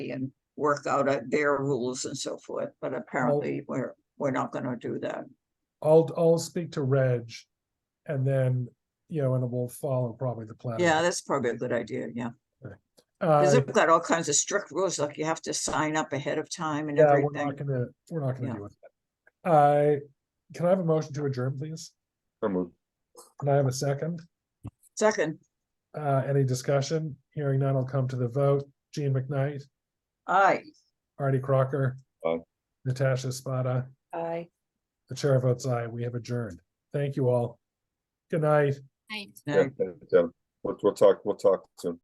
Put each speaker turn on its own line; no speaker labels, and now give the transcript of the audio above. and work out uh, their rules and so forth, but
Oh.
apparently we're, we're not gonna do that.
I'll, I'll speak to Reg and then, you know, and we'll follow probably the plan.
Yeah, that's probably a good idea, yeah. Because
Uh,
they've got all kinds of strict rules, like you have to sign up ahead of time and
yeah, we're not
everything.
gonna, we're not gonna
Yeah.
do it. I, can I have a motion to adjourn, please?
So moved.
Can I have a second?
Second,
Uh, any discussion? Hearing none, I'll come to the vote. Gene McKnight,
aye.
Artie Crocker.
Aye.
Natasha Spada,
Aye.
the chair votes aye. We have adjourned. Thank you all. Good night.
Yeah,
Aye.
yeah. We'll, we'll talk, we'll talk soon.